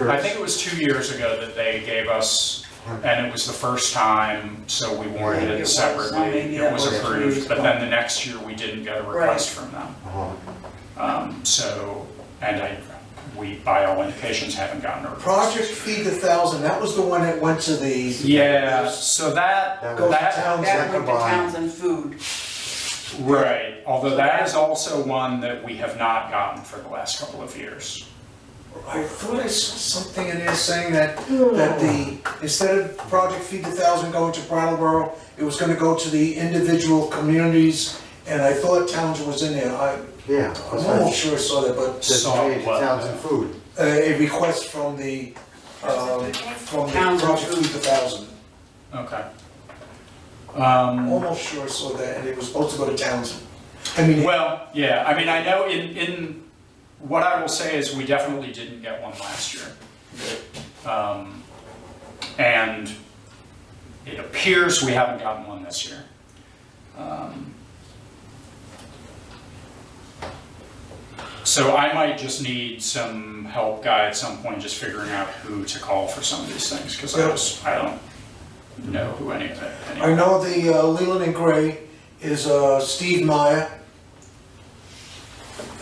I think it was two years ago that they gave us, and it was the first time, so we warranted Yeah, it it was. separately. I mean, yeah, It was it was two years approved, but ago. then the next year, we didn't get a request from them. Uh-huh. Um, So, and I, we, by all indications, haven't gotten a request. Project Feed the Thousand, that was the one that went to the. Yeah, so that, That Goes to that, towns That that went to combine. towns and food. right, although that is also one that we have not gotten for the last couple of years. I thought I saw something in there saying that, that the, instead of Project Feed the Thousand going to Brattleboro, it was gonna go to the individual communities, and I thought towns was in there. I, Yeah. I'm almost sure I saw that, but Saw Designated what? towns and food. uh, a request from the, um, from the Towns. Project Feed the Thousand. Okay. Um, Almost sure I saw that, and it was supposed to go to Townsend. I mean, Well, yeah, I mean, I know in, in, what I will say is we definitely didn't get one last year. Um, And it appears we haven't gotten one this year. Um, So I might just need some help guy at some point, just figuring out who to call for some of these things, because I Yeah. just, I don't know who any of it. any of I know the uh, Leland and Gray is uh, Steve Meyer.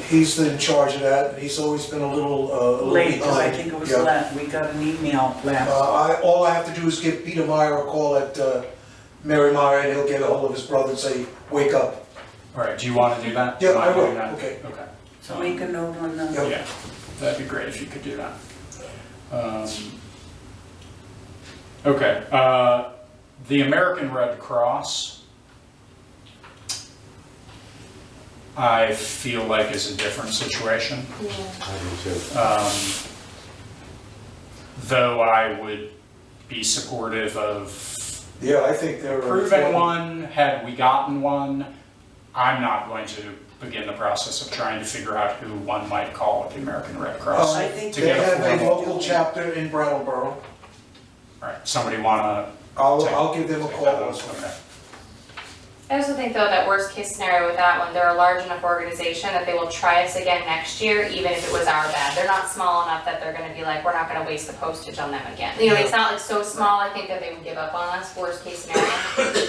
He's in charge of that, he's always been a little, uh, a little Late, 'cause I behind. think it was Yeah. last, we got an email last. Uh, I, all I have to do is give Peter Meyer a call at uh, Mary Meyer, and he'll get a hold of his brother and say, wake up. All right, do you want to do that? Yeah, I will, Do you want to do that? So make a note on Yeah. the, Okay, yeah, that'd be great if you could do that. Um, Okay, uh, the American Red Cross, I feel like is a different situation. I do too. Um, Though I would be supportive of Yeah, I think they're. uh, proven one, had we gotten one, I'm not going to begin the process of trying to figure out who one might call at the American Red Uh, Cross. I think to They get a have a formal- local chapter in Brattleboro. Right, somebody wanna? I'll, take- I'll give them a take call. that one? Okay. I also think though that worst case scenario with that one, they're a large enough organization that they will try us again next year, even if it was our bad. They're not small enough that they're gonna be like, we're not gonna waste the postage on them again. You know, it's not like so small, I think that they would give up on us, worst case scenario.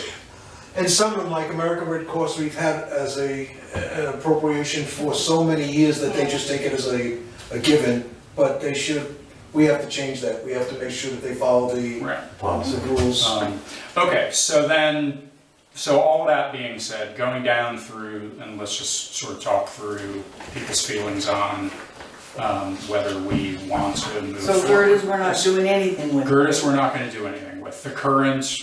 And some of them, like American Red Cross, we've had as a, an appropriation for so many years that they just take it as a, a given, but they should, we have to change that, we have to make sure that they follow the, Right. the rules. Um, Okay, so then, so all that being said, going down through, and let's just sort of talk through people's feelings on um, whether we want to move so forward. Gerdas, we're not doing anything with. Gertis, we're not gonna do anything with. The current,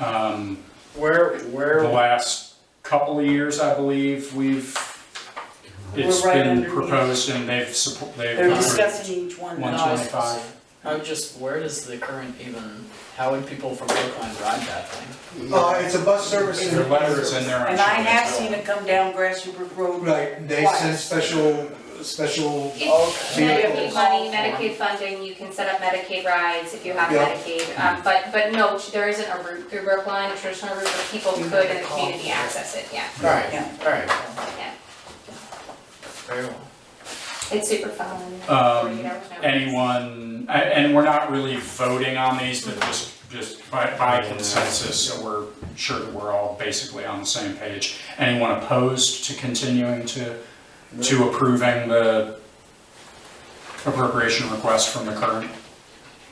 um, Where, the where, last couple of years, I believe, we've, it's We're right been underneath. proposed and they've support, they've. They're discussing each one. One No, I was- twenty-five. how just, where does the current even, how would people from Brookline ride that thing? Uh, it's a bus service in. Their letter is in there. I'm And I sure have it's- seen it come down Grassy Brook Road. Right, they send special, special, If Medicaid Vehicles. money, Medicaid funding, you can set up Medicaid rides if you have Yeah. Medicaid. Um, but, but no, there isn't a route through Brookline, a traditional route where people You could have in to the call. community access it, yeah, Alright, Yeah. alright, yeah. very well. It's super fun. Um, 48 hours notice. Anyone, a- and we're not really voting on these, but just, just by, by consensus, so we're sure that we're all basically on the same page. Anyone opposed to continuing to, to approving the appropriation request from the current?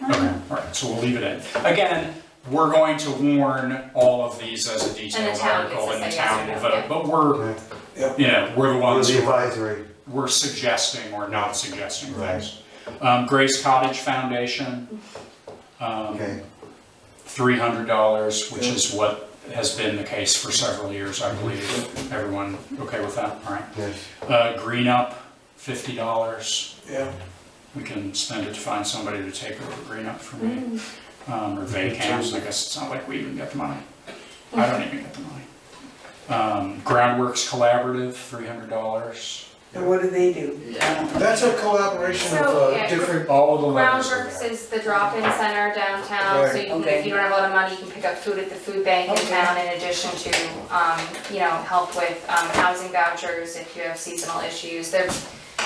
Uh-huh. Okay, all right, so we'll leave it in. Again, we're going to warn all of these as a And detailed the town gets to article, and the say yes town will or no, vote, yeah. but we're, Okay. yeah, you know, we're the Or ones the who are advisory. we're suggesting or not suggesting things. Um, Grace Cottage Foundation, um, Okay. three hundred dollars, which is what has been the case for several years, I believe. Everyone okay with that, all right? Yes. Uh, Green Up, fifty dollars. yeah. We can spend it to find somebody to take over Green Up for Mm-hmm. me. Um, or Vacams, I guess it's not like we even get the money. I don't even get the money. Um, Groundworks Collaborative, three hundred dollars. And what do they do? I don't know. That's a collaboration of So, uh, yeah. different, All of the levels are Groundworks there. is the drop-in center downtown, so Right. you can, Okay. if you don't have a lot of money, you can pick up food at the food bank in Okay. town in addition to, um, you know, help with, um, housing vouchers if you have seasonal issues. They're